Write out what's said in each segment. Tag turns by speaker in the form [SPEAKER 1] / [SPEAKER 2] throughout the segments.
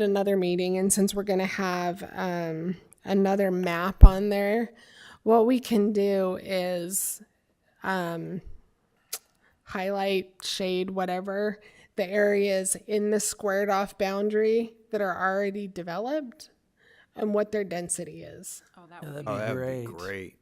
[SPEAKER 1] at another meeting, and since we're going to have um, another map on there, what we can do is um, highlight, shade, whatever, the areas in the squared off boundary that are already developed and what their density is.
[SPEAKER 2] Yeah, that'd
[SPEAKER 3] Oh,
[SPEAKER 2] be
[SPEAKER 3] that would
[SPEAKER 2] great.
[SPEAKER 3] be great.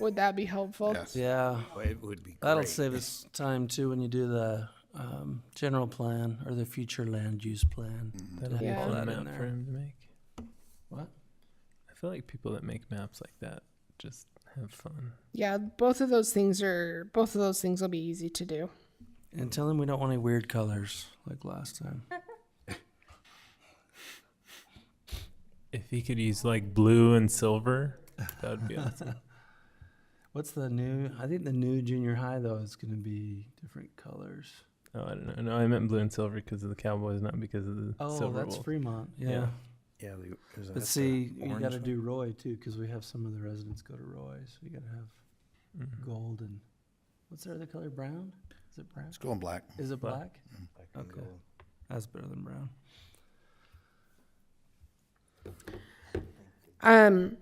[SPEAKER 1] Would that be helpful?
[SPEAKER 3] Yes.
[SPEAKER 2] Yeah,
[SPEAKER 3] Oh, It would be
[SPEAKER 2] that'll
[SPEAKER 3] great.
[SPEAKER 2] save us time too when you do the um, general plan or the future land use plan.
[SPEAKER 4] That'll
[SPEAKER 2] Yeah.
[SPEAKER 4] be
[SPEAKER 1] Yeah.
[SPEAKER 4] a
[SPEAKER 2] Put
[SPEAKER 4] fun
[SPEAKER 2] that in
[SPEAKER 4] map
[SPEAKER 2] there.
[SPEAKER 4] for him to make.
[SPEAKER 2] What?
[SPEAKER 4] I feel like people that make maps like that just have fun.
[SPEAKER 1] Yeah, both of those things are both of those things will be easy to do.
[SPEAKER 2] And tell them we don't want any weird colors like last time.
[SPEAKER 4] If he could use like blue and silver, that would be awesome.
[SPEAKER 2] What's the new? I think the new junior high though is going to be different colors.
[SPEAKER 4] Oh, I don't know. No, I meant blue and silver because of the Cowboys, not because of the
[SPEAKER 2] Oh,
[SPEAKER 4] silver.
[SPEAKER 2] that's
[SPEAKER 4] wolf.
[SPEAKER 2] Fremont. Yeah.
[SPEAKER 4] Yeah.
[SPEAKER 3] Yeah, the- is that the
[SPEAKER 2] But see, you
[SPEAKER 3] orange
[SPEAKER 2] got to
[SPEAKER 3] one?
[SPEAKER 2] do Roy too because we have some of the residents go to Roy, so you got to have
[SPEAKER 4] Mhm.
[SPEAKER 2] gold and what's their other color? Brown? Is it brown?
[SPEAKER 3] It's going black.
[SPEAKER 2] Is it
[SPEAKER 4] Black.
[SPEAKER 2] black?
[SPEAKER 3] Black and
[SPEAKER 2] Okay.
[SPEAKER 3] gold.
[SPEAKER 2] That's better than brown.
[SPEAKER 1] Um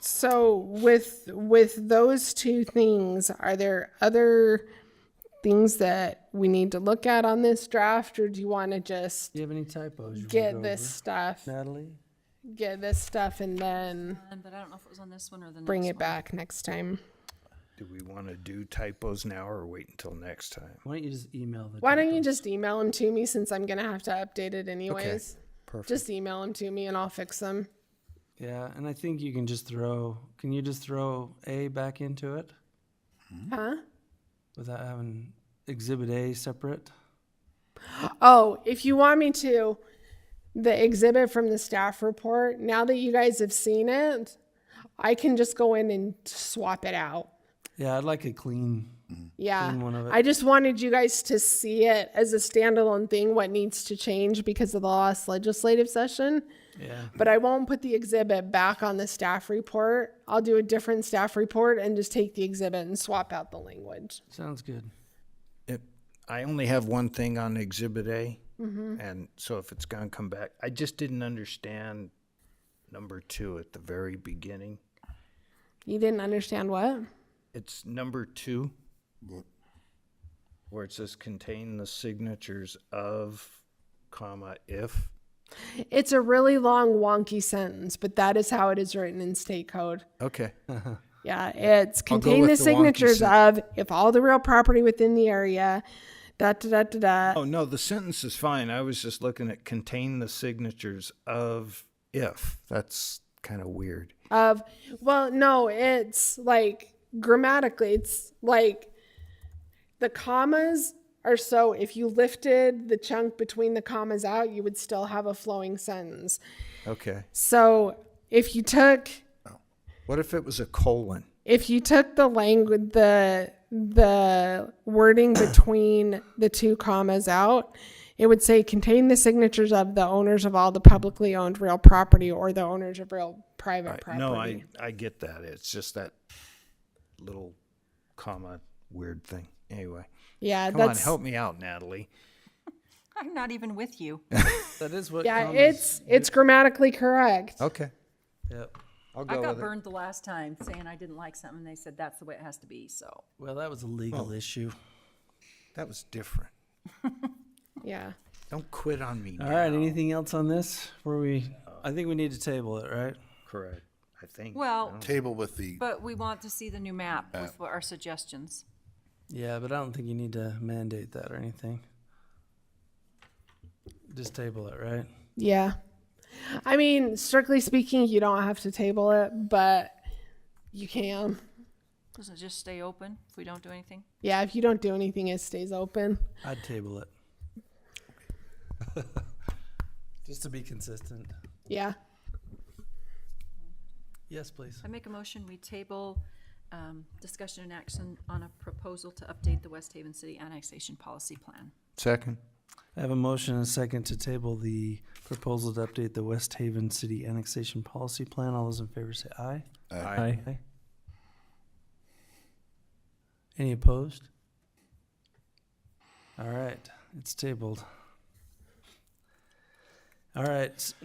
[SPEAKER 1] so with with those two things, are there other things that we need to look at on this draft or do you want to just
[SPEAKER 2] Do you have any typos? You wanna go
[SPEAKER 1] get
[SPEAKER 2] over?
[SPEAKER 1] this stuff,
[SPEAKER 2] Natalie.
[SPEAKER 1] get this stuff and then
[SPEAKER 5] Um, But I don't know if it was on this one or the next.
[SPEAKER 1] bring it
[SPEAKER 5] one.
[SPEAKER 1] back next time?
[SPEAKER 3] Do we want to do typos now or wait until next time?
[SPEAKER 2] Why don't you just email the?
[SPEAKER 1] Why don't you
[SPEAKER 2] typos?
[SPEAKER 1] just email them to me since I'm going to have to update it anyways?
[SPEAKER 3] Perfect.
[SPEAKER 1] Just email them to me and I'll fix them.
[SPEAKER 2] Yeah, and I think you can just throw. Can you just throw A back into it
[SPEAKER 1] Hmm? Huh?
[SPEAKER 2] without having Exhibit A separate?
[SPEAKER 1] Oh, if you want me to, the exhibit from the staff report, now that you guys have seen it, I can just go in and swap it out.
[SPEAKER 2] Yeah, I'd like a clean.
[SPEAKER 1] Yeah.
[SPEAKER 2] Clean one of it.
[SPEAKER 1] I just wanted you guys to see it as a standalone thing, what needs to change because of the last legislative session.
[SPEAKER 2] Yeah.
[SPEAKER 1] But I won't put the exhibit back on the staff report. I'll do a different staff report and just take the exhibit and swap out the language.
[SPEAKER 2] Sounds good.
[SPEAKER 3] It- I only have one thing on Exhibit A, and so if it's gonna come back, I just didn't understand number two at the very beginning.
[SPEAKER 1] You didn't understand what?
[SPEAKER 3] It's number two, where it says contain the signatures of, comma, if.
[SPEAKER 1] It's a really long, wonky sentence, but that is how it is written in state code.
[SPEAKER 3] Okay.
[SPEAKER 1] Yeah, it's
[SPEAKER 3] I'll go
[SPEAKER 1] contain the
[SPEAKER 3] with the wonky
[SPEAKER 1] signatures
[SPEAKER 3] sen-
[SPEAKER 1] of if all the real property within the area, da da da da da.
[SPEAKER 3] Oh, no, the sentence is fine. I was just looking at contain the signatures of if. That's kind of weird.
[SPEAKER 1] Of well, no, it's like grammatically, it's like the commas are so if you lifted the chunk between the commas out, you would still have a flowing sentence.
[SPEAKER 3] Okay.
[SPEAKER 1] So if you took
[SPEAKER 3] What if it was a colon?
[SPEAKER 1] if you took the language the the wording between the two commas out it would say contain the signatures of the owners of all the publicly owned real property or the owners of real private property
[SPEAKER 3] No, I, I get that. It's just that little comma weird thing. Anyway,
[SPEAKER 1] yeah
[SPEAKER 5] Uh,
[SPEAKER 3] come on,
[SPEAKER 1] that's
[SPEAKER 3] help me out, Natalie.
[SPEAKER 5] I'm not even with you.
[SPEAKER 2] That is what.
[SPEAKER 1] yeah
[SPEAKER 2] comes-
[SPEAKER 1] it's it's grammatically correct
[SPEAKER 3] Okay.
[SPEAKER 2] Yep.
[SPEAKER 3] I'll
[SPEAKER 5] I
[SPEAKER 3] go
[SPEAKER 5] got
[SPEAKER 3] with it.
[SPEAKER 5] burned the last time saying I didn't like something. They said that's the way it has to be. So
[SPEAKER 2] Well, that was a legal issue.
[SPEAKER 3] That was different.
[SPEAKER 1] yeah
[SPEAKER 3] Don't quit on me.
[SPEAKER 2] All
[SPEAKER 3] now.
[SPEAKER 2] right. Anything else on this? Where we? I think we need to table it, right?
[SPEAKER 3] Correct. I think.
[SPEAKER 5] well,
[SPEAKER 6] table with the,
[SPEAKER 5] but we want to see the new map with what our suggestions.
[SPEAKER 2] Yeah, but I don't think you need to mandate that or anything. Just table it, right?
[SPEAKER 1] yeah i mean strictly speaking you don't have to table it but you can
[SPEAKER 5] Doesn't it just stay open if we don't do anything?
[SPEAKER 1] yeah if you don't do anything it stays open
[SPEAKER 2] I'd table it. Just to be consistent.
[SPEAKER 1] yeah
[SPEAKER 2] Yes, please.
[SPEAKER 5] I make a motion we table um, discussion and action on a proposal to update the West Haven City annexation policy plan.
[SPEAKER 3] Second.
[SPEAKER 2] I have a motion and a second to table the proposal to update the West Haven City Annexation Policy Plan. All those in favor say aye.
[SPEAKER 4] Aye.
[SPEAKER 2] Aye. Any opposed? All right, it's tabled. All right,